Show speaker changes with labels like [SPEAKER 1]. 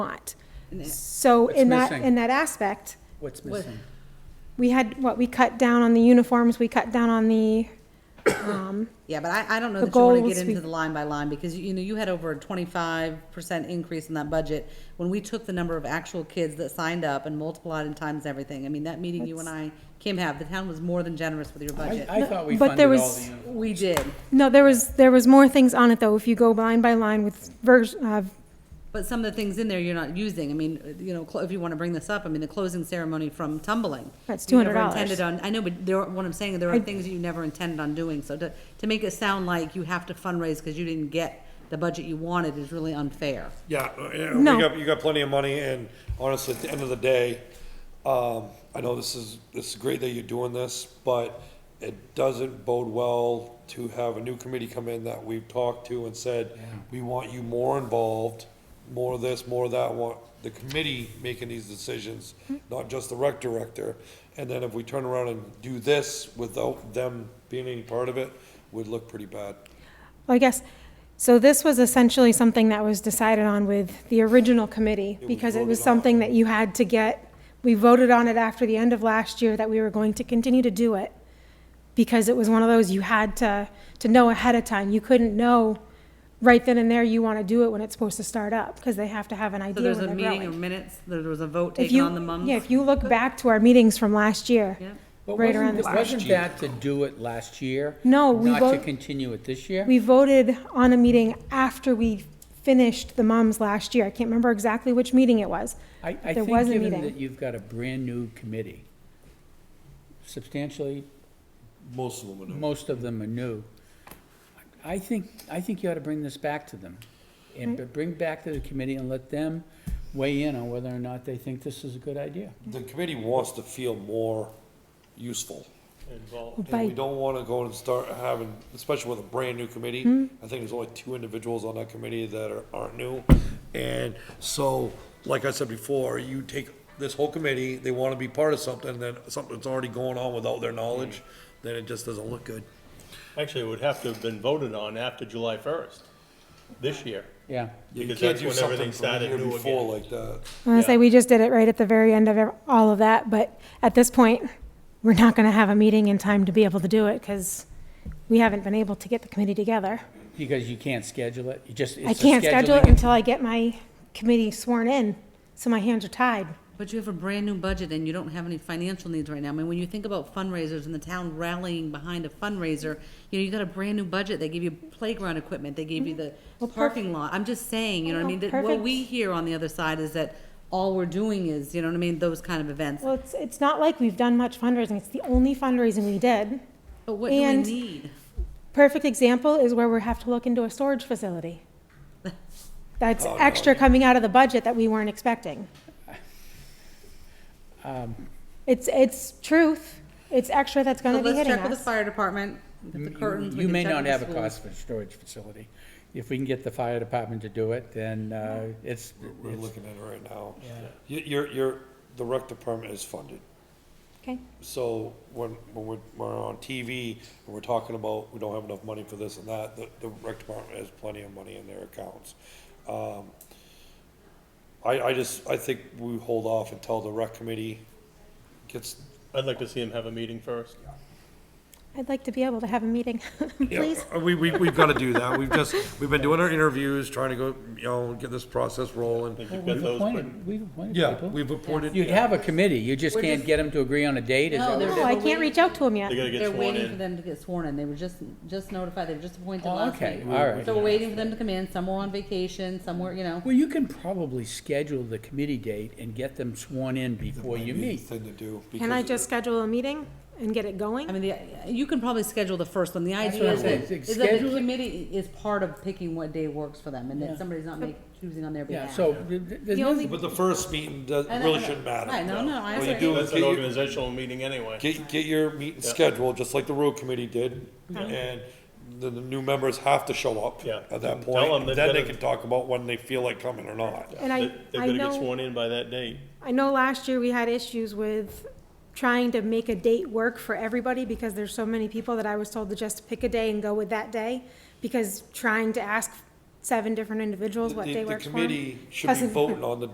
[SPEAKER 1] not. So in that,
[SPEAKER 2] missing?
[SPEAKER 1] in that aspect,
[SPEAKER 2] What's missing?
[SPEAKER 1] we had, what, we cut down on the uniforms, we cut down on the, um,
[SPEAKER 3] Yeah, but I, I don't know
[SPEAKER 1] The
[SPEAKER 3] that you want to
[SPEAKER 1] goals
[SPEAKER 3] get
[SPEAKER 1] we-
[SPEAKER 3] into the line by line because, you know, you had over a twenty-five percent increase in that budget when we took the number of actual kids that signed up and multiplied and times everything. I mean, that meeting you and I, Kim, have, the town was more than generous with your
[SPEAKER 2] I,
[SPEAKER 3] budget.
[SPEAKER 2] I thought we
[SPEAKER 1] But there
[SPEAKER 2] funded all
[SPEAKER 1] was-
[SPEAKER 2] the uniforms.
[SPEAKER 3] We did,
[SPEAKER 1] no, there was, there was more things on it though, if you go line by line with vers, uh,
[SPEAKER 3] but some of the things in there you're not using. I mean, you know, clo- if you want to bring this up, I mean, the closing ceremony from tumbling.
[SPEAKER 1] That's
[SPEAKER 3] you never
[SPEAKER 1] $200.
[SPEAKER 3] Intended on, I know, but there, are- what I'm saying, there
[SPEAKER 1] I-
[SPEAKER 3] are things you never intended on doing. So to, to make it sound like you have to fundraise because you didn't get the budget you wanted is really unfair.
[SPEAKER 4] Yeah, uh, yeah,
[SPEAKER 1] No.
[SPEAKER 4] we got, you got plenty of money, and honestly, at the end of the day, um, I know this is, this is great that you're doing this, but it doesn't bode well to have a new committee come in that we've talked to and said, we want you more involved, more this, more that, want the committee making these decisions, not just the rec director. And then if we turn around and do this without them being any part of it, would look pretty bad.
[SPEAKER 1] Well, I guess, so this was essentially something that was decided on with the original committee,
[SPEAKER 4] was
[SPEAKER 1] because it was
[SPEAKER 4] voted on.
[SPEAKER 1] something that you had to get, we voted on it after the end of last year that we were going to continue to do it, because it was one of those you had to, to know ahead of time. You couldn't know right then and there you want to do it when it's supposed to start up, because they have to have an
[SPEAKER 3] So
[SPEAKER 1] idea
[SPEAKER 3] there's
[SPEAKER 1] when
[SPEAKER 3] a
[SPEAKER 1] they're
[SPEAKER 3] meeting of
[SPEAKER 1] growing.
[SPEAKER 3] minutes, there was a vote
[SPEAKER 1] If
[SPEAKER 3] taken
[SPEAKER 1] you,
[SPEAKER 3] on the mums.
[SPEAKER 1] yeah, if you look back to our meetings from last year,
[SPEAKER 3] Yeah.
[SPEAKER 2] But
[SPEAKER 1] right
[SPEAKER 2] wasn't
[SPEAKER 1] around
[SPEAKER 2] th-
[SPEAKER 1] this.
[SPEAKER 2] Wasn't that to do it last year?
[SPEAKER 1] No, we
[SPEAKER 2] Not to
[SPEAKER 1] vote-
[SPEAKER 2] continue it this year?
[SPEAKER 1] We voted on a meeting after we finished the moms last year. I can't remember exactly which meeting it was.
[SPEAKER 2] I,
[SPEAKER 1] there
[SPEAKER 2] I think
[SPEAKER 1] was a
[SPEAKER 2] given
[SPEAKER 1] meeting.
[SPEAKER 2] that you've got a brand-new committee, substantially,
[SPEAKER 4] Most of them would know.
[SPEAKER 2] most of them are new, I think, I think you ought to bring this back to them. And
[SPEAKER 1] Hmm?
[SPEAKER 2] b- bring back to the committee and let them weigh in on whether or not they think this is a good idea.
[SPEAKER 4] The committee wants to feel more useful. And we
[SPEAKER 1] By,
[SPEAKER 4] don't wanna go and start having, especially with a brand-new committee, I think there's only two individuals on that committee that are, aren't new. And so, like I said before, you take this whole committee, they wanna be part of something, then something's already going on without their knowledge,
[SPEAKER 5] Hmm.
[SPEAKER 4] then it just doesn't look good.
[SPEAKER 5] Actually, it would have to have been voted on after July first, this year.
[SPEAKER 2] Yeah.
[SPEAKER 4] You
[SPEAKER 5] Because
[SPEAKER 4] can't
[SPEAKER 5] that's
[SPEAKER 4] do
[SPEAKER 5] when
[SPEAKER 4] something from
[SPEAKER 5] everything
[SPEAKER 4] the
[SPEAKER 5] started
[SPEAKER 4] year
[SPEAKER 5] new
[SPEAKER 4] before
[SPEAKER 5] again.
[SPEAKER 4] Like that.
[SPEAKER 1] I want to say, we just did it right at the very end of ev- all of that, but at this point, we're not going to have a meeting in time to be able to do it because we haven't been able to get the committee together.
[SPEAKER 2] Because you can't schedule it, you just,
[SPEAKER 1] I
[SPEAKER 2] it's a
[SPEAKER 1] can't schedule it
[SPEAKER 2] scheduling-
[SPEAKER 1] until I get my committee sworn in, so my hands are tied.
[SPEAKER 3] But you have a brand new budget and you don't have any financial needs right now. I mean, when you think about fundraisers and the town rallying behind a fundraiser, you know, you got a brand new budget. They gave you playground equipment, they gave you
[SPEAKER 1] Mm-hmm.
[SPEAKER 3] the parking lot. I'm just saying, you know what I mean? That what
[SPEAKER 1] Oh, Perfect.
[SPEAKER 3] we hear on the other side is that all we're doing is, you know what I mean, those kind of events.
[SPEAKER 1] Well, it's, it's not like we've done much fundraising. It's the only fundraising we did.
[SPEAKER 3] But what do we
[SPEAKER 1] and-
[SPEAKER 3] need?
[SPEAKER 1] Perfect example is where we have to look into a storage facility. That's
[SPEAKER 5] Oh,
[SPEAKER 1] extra coming out of the budget that we weren't expecting.
[SPEAKER 5] Um,
[SPEAKER 1] It's, it's truth. It's extra that's
[SPEAKER 3] So
[SPEAKER 1] gonna be
[SPEAKER 3] let's
[SPEAKER 1] hitting
[SPEAKER 3] check with the
[SPEAKER 1] us.
[SPEAKER 3] fire department, with the
[SPEAKER 2] You-
[SPEAKER 3] curtains. we
[SPEAKER 2] You
[SPEAKER 3] can
[SPEAKER 2] may
[SPEAKER 3] check
[SPEAKER 2] not
[SPEAKER 3] with the
[SPEAKER 2] have a
[SPEAKER 3] schools.
[SPEAKER 2] cost for a storage facility. If we can get the fire department to do it, then uh, it's,
[SPEAKER 4] We're
[SPEAKER 2] it's-
[SPEAKER 4] looking at it right now. You, you're, you're, the rec department is funded.
[SPEAKER 1] Okay,
[SPEAKER 4] So when, when we're, we're on TV and we're talking about, we don't have enough money for this and that, the, the rec department has plenty of money in their accounts. Um, I, I just, I think we hold off until the rec committee gets,
[SPEAKER 5] I'd like to see him have a meeting first.
[SPEAKER 1] I'd like to be able to have a meeting, please.
[SPEAKER 4] Yeah, we, we, we've gotta do that, we've just, we've been doing our interviews, trying to go, you know, get this process
[SPEAKER 5] I
[SPEAKER 4] rolling.
[SPEAKER 5] think you've got
[SPEAKER 2] we've
[SPEAKER 5] those, but
[SPEAKER 2] appointed, we've appointed
[SPEAKER 4] Yeah,
[SPEAKER 2] people.
[SPEAKER 4] we've appointed.
[SPEAKER 2] You'd have a committee, you just can't get them to agree on a date, is
[SPEAKER 3] No,
[SPEAKER 2] that
[SPEAKER 3] they're-
[SPEAKER 2] what?
[SPEAKER 1] No, I can't reach out to him yet.
[SPEAKER 5] they gotta get
[SPEAKER 3] They're
[SPEAKER 5] sworn
[SPEAKER 3] waiting for
[SPEAKER 5] in.
[SPEAKER 3] them to get sworn in. They were just, just notified, they were just appointed
[SPEAKER 2] Oh,
[SPEAKER 3] last
[SPEAKER 2] okay,
[SPEAKER 3] week.
[SPEAKER 2] all right.
[SPEAKER 3] So we're waiting for them to come in, some were on vacation, some were, you know.
[SPEAKER 2] Well, you can probably schedule the committee date and get them sworn in before you meet.
[SPEAKER 4] Thing to do.
[SPEAKER 1] Can I
[SPEAKER 4] because-
[SPEAKER 1] just schedule a meeting and get it
[SPEAKER 3] I
[SPEAKER 1] going?
[SPEAKER 3] mean, the- you can probably schedule the first one. The idea
[SPEAKER 2] what
[SPEAKER 3] is
[SPEAKER 2] I'm
[SPEAKER 3] that,
[SPEAKER 2] saying.
[SPEAKER 3] is that the
[SPEAKER 2] Schedule it.
[SPEAKER 3] committee is part of picking what day works for them and
[SPEAKER 2] Yeah.
[SPEAKER 3] that somebody's not make, choosing on their
[SPEAKER 2] Yeah,
[SPEAKER 3] behalf.
[SPEAKER 2] so, th- th- there's
[SPEAKER 1] The only-
[SPEAKER 2] nothing,
[SPEAKER 4] But the first meeting does,
[SPEAKER 3] I know, I
[SPEAKER 4] really
[SPEAKER 3] know.
[SPEAKER 4] shouldn't matter.
[SPEAKER 3] Right, no, no, I
[SPEAKER 4] What you
[SPEAKER 3] agree.
[SPEAKER 4] do is
[SPEAKER 5] That's
[SPEAKER 4] get
[SPEAKER 5] an
[SPEAKER 4] your-
[SPEAKER 5] organizational meeting anyway.
[SPEAKER 4] Get, get your meeting scheduled, just like the road committee did,
[SPEAKER 1] Mm-hmm.
[SPEAKER 4] and the, the new members have to show up
[SPEAKER 5] Yeah.
[SPEAKER 4] at that
[SPEAKER 5] Tell them
[SPEAKER 4] point.
[SPEAKER 5] they've
[SPEAKER 4] Then they
[SPEAKER 5] gotta-
[SPEAKER 4] can talk about when they feel like coming or not.
[SPEAKER 1] And I,
[SPEAKER 5] They-
[SPEAKER 1] I
[SPEAKER 5] They've gotta get
[SPEAKER 1] know,
[SPEAKER 5] sworn in by that date.
[SPEAKER 1] I know last year we had issues with trying to make a date work for everybody because there's so many people that I was told to just pick a day and go with that day. Because trying to ask seven different individuals what
[SPEAKER 4] The-
[SPEAKER 1] day
[SPEAKER 4] The
[SPEAKER 1] works for 'em
[SPEAKER 4] committee should be
[SPEAKER 1] hasn't-
[SPEAKER 4] voting on the